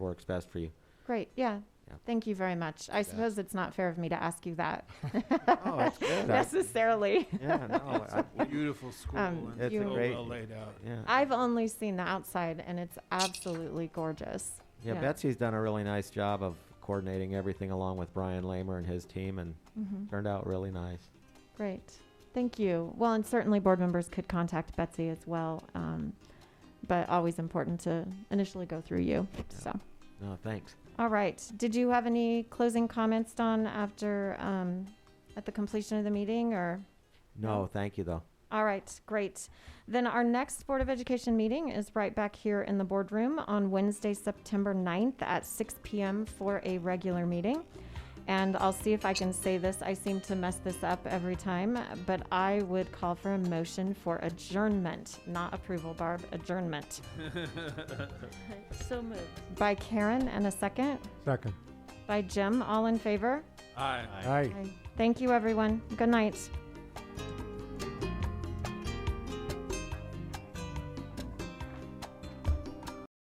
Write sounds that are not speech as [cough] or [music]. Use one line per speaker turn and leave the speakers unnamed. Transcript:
works best for you.
Great, yeah.
Yeah.
Thank you very much. I suppose it's not fair of me to ask you that
[laughs] Oh, that's
[laughs]
good. I- [laughs]
necessarily.
Yeah, no, I-
Beautiful school.
Um,
and
It's a
so
great-
Well laid out.
yeah.
I've only seen the outside and it's absolutely gorgeous.
Yeah,
Yeah.
Betsy's done a really nice job of coordinating everything along with Brian Lamer and his team, and
Mhm.
turned out really nice.
Great. Thank you. Well, and certainly board members could contact Betsy as well. Um, but always important to initially go through you. So,
No, thanks.
all right. Did you have any closing comments, Don, after um, at the completion of the meeting or?
No, thank you though.
All right, great. Then our next Board of Education meeting is right back here in the boardroom on Wednesday, September 9th at 6 p.m. for a regular meeting. And I'll see if I can say this. I seem to mess this up every time, but I would call for a motion for adjournment, not approval, Barb, adjournment.
[laughs] So moved.
By Karen and a second.
Second.
By Jim, all in favor?
Aye.
Aye.
Thank you, everyone. Good night.